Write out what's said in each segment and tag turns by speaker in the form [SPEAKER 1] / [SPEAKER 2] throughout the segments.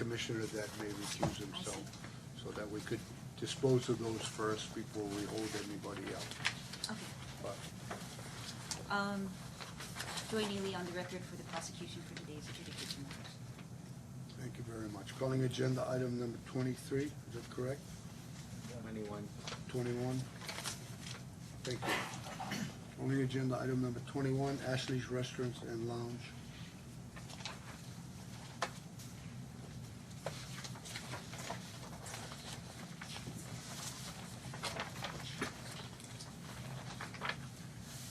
[SPEAKER 1] commissioner that may recuse himself, so that we could dispose of those first before we hold anybody else.
[SPEAKER 2] Okay.
[SPEAKER 1] But
[SPEAKER 2] Um, Joy Neely on the record for the prosecution for today's adjudication matters.
[SPEAKER 1] thank you very much. Calling agenda item number twenty-three, is that correct?
[SPEAKER 3] Twenty-one.
[SPEAKER 1] Twenty-one? Thank you. Calling agenda item number twenty-one, Ashley's Restaurants and Lounge.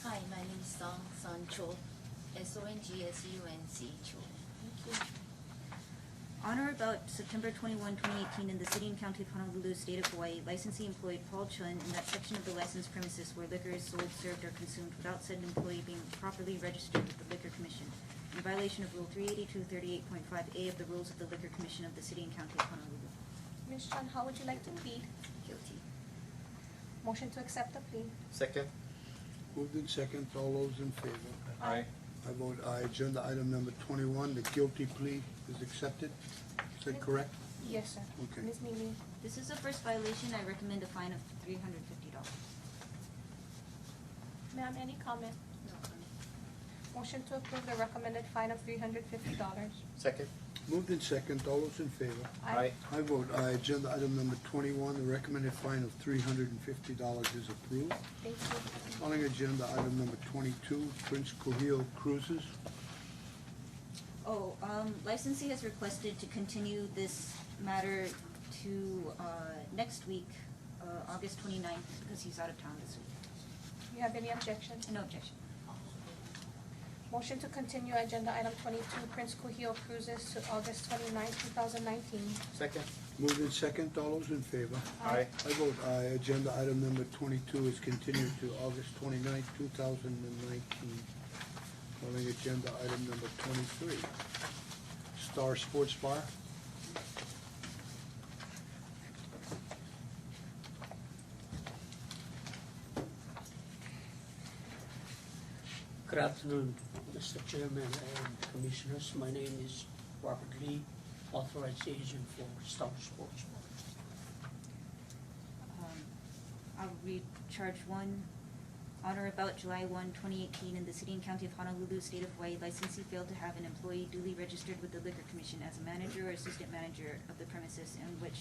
[SPEAKER 4] Hi, my name is Song Sun Cho, S O N G S U N C Cho.
[SPEAKER 2] Thank you. On or about September 21, 2018, in the city and county of Honolulu, state of Hawaii, licensee employed Paul Chun in that section of the licensed premises where liquor is sold, served, or consumed without said employee being properly registered with the Liquor Commission, in violation of Rule 38238.5A of the Rules of the Liquor Commission of the city and county of Honolulu.
[SPEAKER 5] Ms. Chan, how would you like to plead?
[SPEAKER 2] Guilty.
[SPEAKER 5] Motion to accept the plea.
[SPEAKER 3] Second.
[SPEAKER 1] Moved in second, all those in favor?
[SPEAKER 5] Aye.
[SPEAKER 1] I vote aye. Agenda item number twenty-one, the guilty plea is accepted. Is that correct?
[SPEAKER 5] Yes, sir.
[SPEAKER 1] Okay.
[SPEAKER 5] Ms. Neely,
[SPEAKER 2] This is a first violation. I recommend a fine of $350.
[SPEAKER 5] ma'am, any comment?
[SPEAKER 2] No comment.
[SPEAKER 5] Motion to approve the recommended fine of three hundred fifty dollars.
[SPEAKER 3] Second.
[SPEAKER 1] Moved in second, all those in favor? I vote aye. Agenda item number twenty-one, the recommended fine of three hundred and fifty dollars is approved.
[SPEAKER 5] Thank you.
[SPEAKER 1] Calling agenda item number twenty-two, Prince Cohio Cruises.
[SPEAKER 2] Oh, um, licensee has requested to continue this matter to, uh, next week, uh, August twenty-ninth, because he's out of town this week.
[SPEAKER 5] You have any objections?
[SPEAKER 2] No objection.
[SPEAKER 5] Motion to continue agenda item twenty-two, Prince Kuhio Cruises to August twenty-ninth, two thousand nineteen.
[SPEAKER 3] Second.
[SPEAKER 1] Moved in second, all those in favor?
[SPEAKER 3] Aye.
[SPEAKER 1] I vote aye. Agenda item number twenty-two is continued to August twenty-ninth, two thousand and nineteen. Calling agenda item number twenty-three, Star Sports Bar.
[SPEAKER 6] Good afternoon, Mr. Chairman and Commissioners. My name is Robert Lee, authorized agent for Star Sports Bar.
[SPEAKER 2] Um, I'll read charge one. On or about July 1, 2018, in the city and county of Honolulu, state of Hawaii, licensee failed to have an employee duly registered with the Liquor Commission as a manager or assistant manager of the premises in which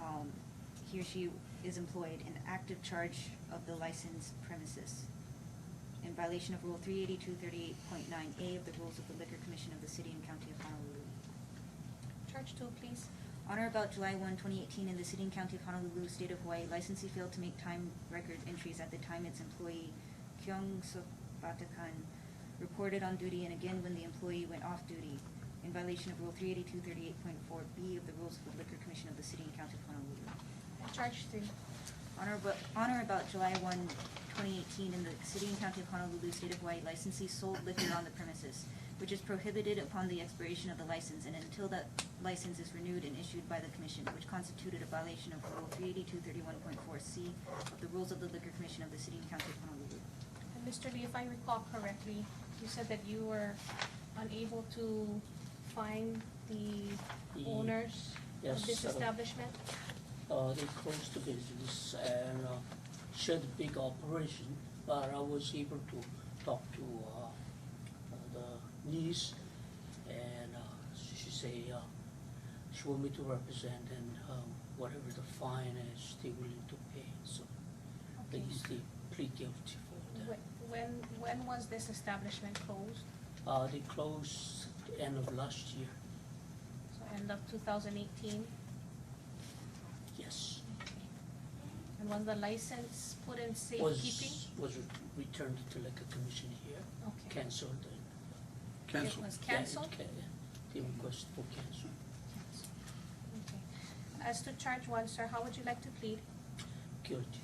[SPEAKER 2] um, he or she is employed in active charge of the licensed premises in violation of Rule 38238.9A of the Rules of the Liquor Commission of the city and county of Honolulu.
[SPEAKER 5] Charge two, please.
[SPEAKER 2] On or about July 1, 2018, in the city and county of Honolulu, state of Hawaii, licensee failed to make time record entries at the time its employee, Kyung Suk Batakan, reported on duty and again when the employee went off duty, in violation of Rule 38238.4B of the Rules of the Liquor Commission of the city and county of Honolulu.
[SPEAKER 5] And charge three.
[SPEAKER 2] On or abo- on or about July 1, 2018, in the city and county of Honolulu, state of Hawaii, licensee sold liquor on the premises, which is prohibited upon the expiration of the license and until that license is renewed and issued by the commission, which constituted a violation of Rule 38231.4C of the Rules of the Liquor Commission of the city and county of Honolulu.
[SPEAKER 5] And Mr. Lee, if I recall correctly, you said that you were unable to find the
[SPEAKER 6] The-
[SPEAKER 5] owners of
[SPEAKER 6] yes,
[SPEAKER 5] this
[SPEAKER 6] uh,
[SPEAKER 5] establishment?
[SPEAKER 6] Uh, They closed the business and uh, shut the big operation, but I was able to talk to uh, uh, the niece, and uh, she say, uh, she want me to represent and um, whatever the fine is, they willing to pay, so they
[SPEAKER 5] Okay.
[SPEAKER 6] they plead guilty for that.
[SPEAKER 5] Wh- When, when was this establishment closed?
[SPEAKER 6] Uh, they closed the end of last year,
[SPEAKER 5] So end of two thousand eighteen?
[SPEAKER 6] yes.
[SPEAKER 5] And was the license put in safekeeping?
[SPEAKER 6] Was, was re- returned to liquor commission here,
[SPEAKER 5] Okay.
[SPEAKER 6] cancelled. and-
[SPEAKER 1] Cancel.
[SPEAKER 5] It was
[SPEAKER 6] yeah, it
[SPEAKER 5] canceled?
[SPEAKER 6] ca- They requested for cancel.
[SPEAKER 5] Okay. As to charge one, sir, how would you like to plead?
[SPEAKER 6] Guilty,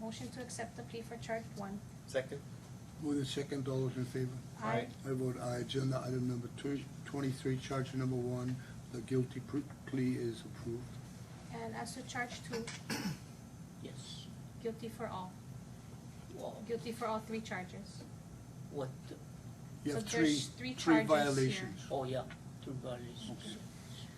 [SPEAKER 5] Motion to accept the plea for charge one.
[SPEAKER 3] Second.
[SPEAKER 1] Move the second, all those in favor?
[SPEAKER 3] Aye.
[SPEAKER 1] I vote aye. Agenda item number two- twenty-three, charge number one, the guilty pr- plea is approved.
[SPEAKER 5] And as to charge two,
[SPEAKER 6] yes.
[SPEAKER 5] guilty for all,
[SPEAKER 6] Well,
[SPEAKER 5] guilty for all three charges.
[SPEAKER 6] what, the-
[SPEAKER 1] You
[SPEAKER 5] So
[SPEAKER 1] have
[SPEAKER 5] there's
[SPEAKER 1] three, three
[SPEAKER 5] three charges here.
[SPEAKER 1] violations.
[SPEAKER 6] oh yeah, two violations.
[SPEAKER 1] Okay.